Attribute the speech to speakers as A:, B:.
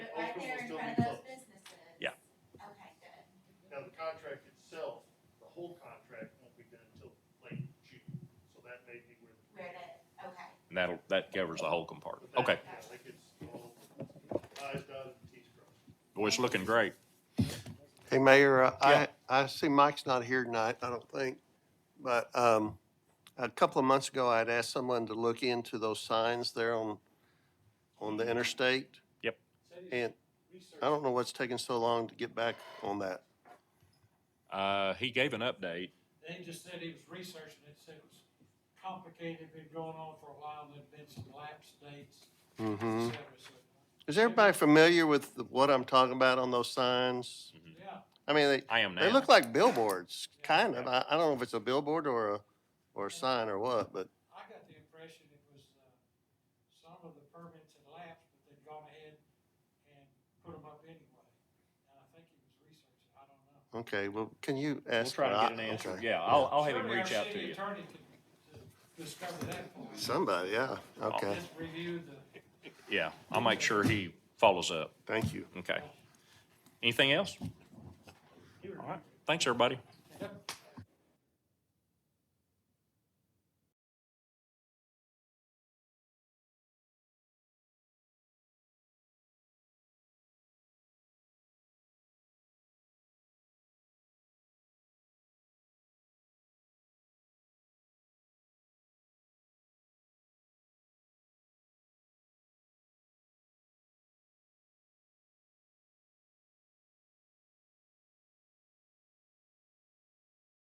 A: that covers the whole compartment. Okay,
B: I think it's all I's dotted and T's crossed.
A: boy, it's looking great.
C: Hey, Mayor, uh,
A: Yeah.
C: I, I see Mike's not here tonight, I don't think, but um, a couple of months ago, I'd asked someone to look into those signs there on, on the interstate.
A: Yep.
C: And I don't know what's taking so long to get back on that.
A: Uh, he gave an update.
D: They just said he was researching it, said it was complicated, been going on for a while, there'd been some lapse dates,
A: Mm-hmm.
C: hmm
D: et cetera, so,
C: Is everybody familiar with the- what I'm talking about on those signs?
D: yeah.
C: I mean, they,
A: I am now.
C: they look like billboards, kind of. I, I don't know if it's a billboard or a, or a sign or what, but
D: I got the impression it was, uh, some of the permits had lapsed, but they'd gone ahead and put them up anyway. And I think he was researching, I don't know.
C: Okay, well, can you
A: We'll
C: ask?
A: try to
C: I-
A: get an answer.
C: okay.
A: Yeah, I'll, I'll have him reach out to
D: Certainly
A: you.
D: our city attorney can uh, discover that for us.
C: Somebody, yeah, okay,
D: Just review the,
A: Yeah, I'll make sure he follows up.
C: thank you.
A: Okay. Anything else? All right. Thanks, everybody.
D: yep,